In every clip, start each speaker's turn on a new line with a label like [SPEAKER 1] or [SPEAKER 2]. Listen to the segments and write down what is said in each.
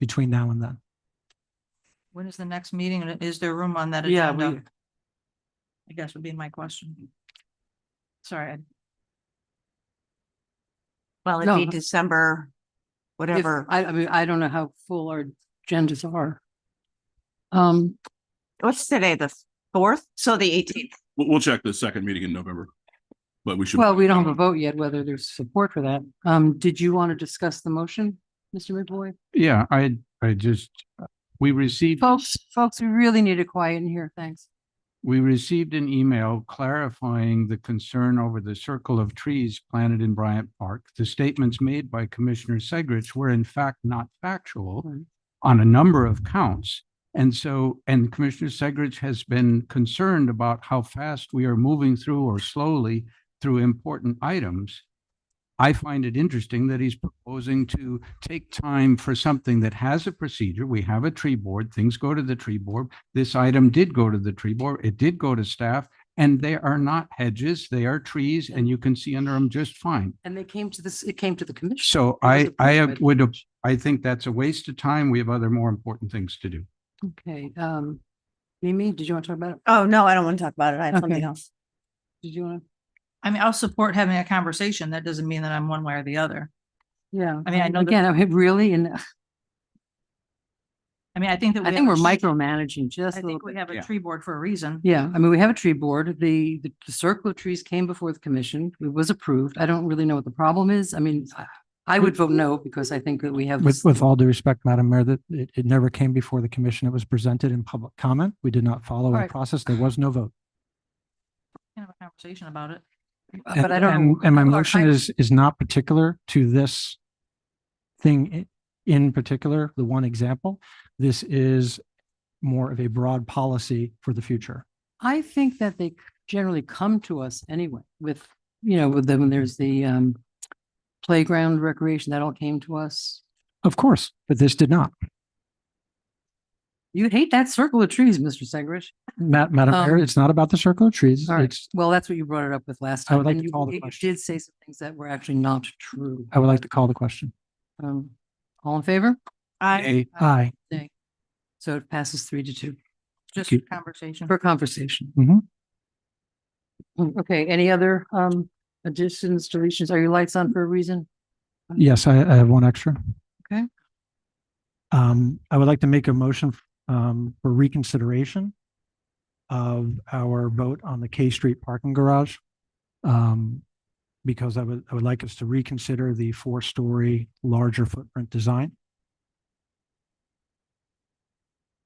[SPEAKER 1] between now and then.
[SPEAKER 2] When is the next meeting and is there room on that
[SPEAKER 3] Yeah,
[SPEAKER 2] agenda?
[SPEAKER 3] we-
[SPEAKER 2] I guess would be my question. Sorry, I-
[SPEAKER 4] Well, it'd
[SPEAKER 3] No.
[SPEAKER 4] be December,
[SPEAKER 3] if-
[SPEAKER 4] whatever.
[SPEAKER 3] I, I mean, I don't know how full our agendas are. Um,
[SPEAKER 4] What's today, the fourth? So the eighteenth.
[SPEAKER 5] We'll, we'll check the second meeting in November. But we should.
[SPEAKER 3] well, we don't have a vote yet whether there's support for that. Um, did you want to discuss the motion, Mr. McBoy?
[SPEAKER 6] Yeah, I, I just, we received,
[SPEAKER 3] Folks, folks, we really need to quiet in here. Thanks.
[SPEAKER 6] we received an email clarifying the concern over the circle of trees planted in Bryant Park. The statements made by Commissioner Segrich were in fact not factual
[SPEAKER 3] Right.
[SPEAKER 6] on a number of counts. And so, and Commissioner Segrich has been concerned about how fast we are moving through or slowly through important items. I find it interesting that he's proposing to take time for something that has a procedure. We have a tree board, things go to the tree board. This item did go to the tree board, it did go to staff, and they are not hedges, they are trees, and you can see under them just fine.
[SPEAKER 3] And they came to this, it came to the commission.
[SPEAKER 6] So
[SPEAKER 3] It was
[SPEAKER 6] I,
[SPEAKER 3] approved by
[SPEAKER 6] I
[SPEAKER 3] the
[SPEAKER 6] would,
[SPEAKER 3] commission.
[SPEAKER 6] I think that's a waste of time. We have other more important things to do.
[SPEAKER 3] Okay, um, Mimi, did you want to talk about it?
[SPEAKER 4] Oh, no, I don't want to talk about it. I have something
[SPEAKER 3] Okay.
[SPEAKER 4] else.
[SPEAKER 3] Did you want to?
[SPEAKER 2] I mean, I'll support having a conversation. That doesn't mean that I'm one way or the other.
[SPEAKER 3] Yeah.
[SPEAKER 2] I mean, I know that-
[SPEAKER 3] Again, I mean, really, and
[SPEAKER 2] I mean, I think that.
[SPEAKER 3] I
[SPEAKER 2] we
[SPEAKER 3] think
[SPEAKER 2] have
[SPEAKER 3] we're
[SPEAKER 2] a tree-
[SPEAKER 3] micromanaging just
[SPEAKER 2] I
[SPEAKER 3] a little
[SPEAKER 2] think
[SPEAKER 3] bit.
[SPEAKER 2] we have a
[SPEAKER 6] yeah.
[SPEAKER 2] tree board for a reason.
[SPEAKER 3] Yeah, I mean, we have a tree board. The, the the circle of trees came before the commission. It was approved. I don't really know what the problem is. I mean, I- I would vote no because I think that we have.
[SPEAKER 1] With,
[SPEAKER 3] this-
[SPEAKER 1] with all due respect, Madam Mayor, that it, it never came before the commission. It was presented in public comment. We did not follow a
[SPEAKER 3] Right.
[SPEAKER 1] process. There was no vote.
[SPEAKER 2] Can have a conversation about it.
[SPEAKER 3] uh, But I
[SPEAKER 1] And-
[SPEAKER 3] don't. know
[SPEAKER 1] and- And my
[SPEAKER 3] who our
[SPEAKER 1] motion
[SPEAKER 3] fin-
[SPEAKER 1] is, is not particular to this thing i- in particular, the one example. This is more of a broad policy for the future.
[SPEAKER 3] I think that they generally come to us anyway with, you know, with them, when there's the, um, playground recreation, that all came to us.
[SPEAKER 1] Of course, but this did not.
[SPEAKER 3] You hate that circle of trees, Mr. Segrich.
[SPEAKER 1] Ma- Madam Mayor,
[SPEAKER 3] Um,
[SPEAKER 1] it's not about the circle of trees.
[SPEAKER 3] All right.
[SPEAKER 1] It's,
[SPEAKER 3] Well, that's what you brought it up with
[SPEAKER 1] I
[SPEAKER 3] last time.
[SPEAKER 1] would like
[SPEAKER 3] and
[SPEAKER 1] to
[SPEAKER 3] you-
[SPEAKER 1] call the
[SPEAKER 3] you
[SPEAKER 1] question.
[SPEAKER 3] Did say some things that were actually not true.
[SPEAKER 1] I would like to call the question.
[SPEAKER 3] Um, all in favor?
[SPEAKER 2] I,
[SPEAKER 6] Hey,
[SPEAKER 3] Uh,
[SPEAKER 1] Aye.
[SPEAKER 3] So it passes three to two
[SPEAKER 2] just
[SPEAKER 1] you.
[SPEAKER 2] conversation.
[SPEAKER 3] for conversation.
[SPEAKER 1] Mhm.
[SPEAKER 3] Mm, Okay, any other um additions, deletions? Are your lights on for a reason?
[SPEAKER 1] Yes, I, I have one extra.
[SPEAKER 3] Okay.
[SPEAKER 1] Um, I would like to make a motion, um, for reconsideration of our vote on the K Street parking garage. Um, because I would, I would like us to reconsider the four-story larger footprint design.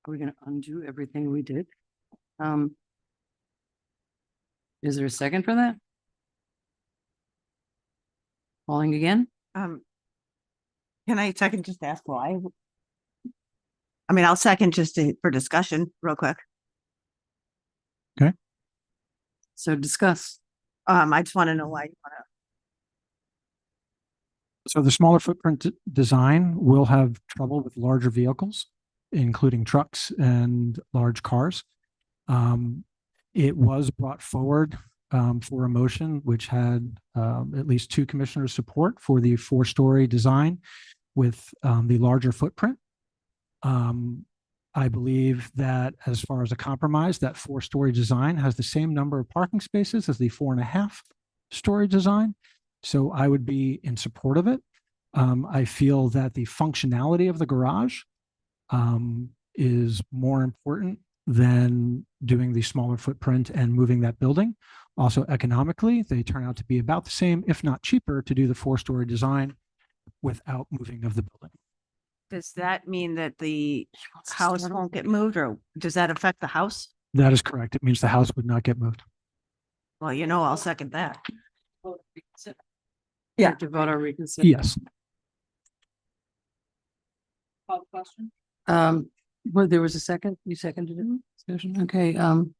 [SPEAKER 3] Are we gonna undo everything we did? Um. Is there a second for that? Calling again?
[SPEAKER 4] Um, can I second just ask why? I mean, I'll second just to- for discussion real quick.
[SPEAKER 3] So discuss.
[SPEAKER 4] Um, I just want to know why you want to.
[SPEAKER 1] So the smaller footprint d- design will have trouble with larger vehicles, including trucks and large cars. Um, It was brought forward um, for a motion which had um, at least two commissioners' support for the four-story design with um, the larger footprint. Um, I believe that as far as a compromise, that four-story design has the same number of parking spaces as the four and a half story design. So I would be in support of it. Um, I feel that the functionality of the garage um, is more important than doing the smaller footprint and moving that building. Also economically, they turn out to be about the same, if not cheaper, to do the four-story design without moving of the building.
[SPEAKER 4] Does that mean that the
[SPEAKER 3] Let's
[SPEAKER 4] house
[SPEAKER 3] start
[SPEAKER 4] won't get moved or does that affect the house?
[SPEAKER 1] That is correct. It means the house would not get moved.
[SPEAKER 4] Well, you know, I'll second that.
[SPEAKER 3] over. Reconsider.
[SPEAKER 4] Yeah.
[SPEAKER 3] To vote on reconsider.
[SPEAKER 1] Yes.
[SPEAKER 2] Call the question.
[SPEAKER 3] Um, well, there was a second, you seconded it, discussion, okay, um.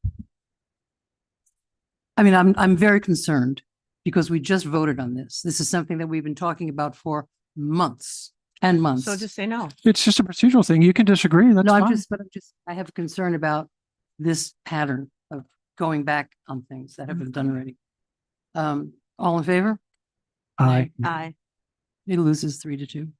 [SPEAKER 3] I mean, I'm, I'm very concerned because we just voted on this. This is something that we've been talking about for months and months.
[SPEAKER 4] So just say no.
[SPEAKER 1] It's just a procedural thing. You can disagree. That's
[SPEAKER 3] No, I'm
[SPEAKER 1] fine.
[SPEAKER 3] just, but I'm just, I have a concern about this pattern of going back on things that have been done already. Um, all in favor?
[SPEAKER 1] I,
[SPEAKER 4] Aye.
[SPEAKER 3] It loses three to two.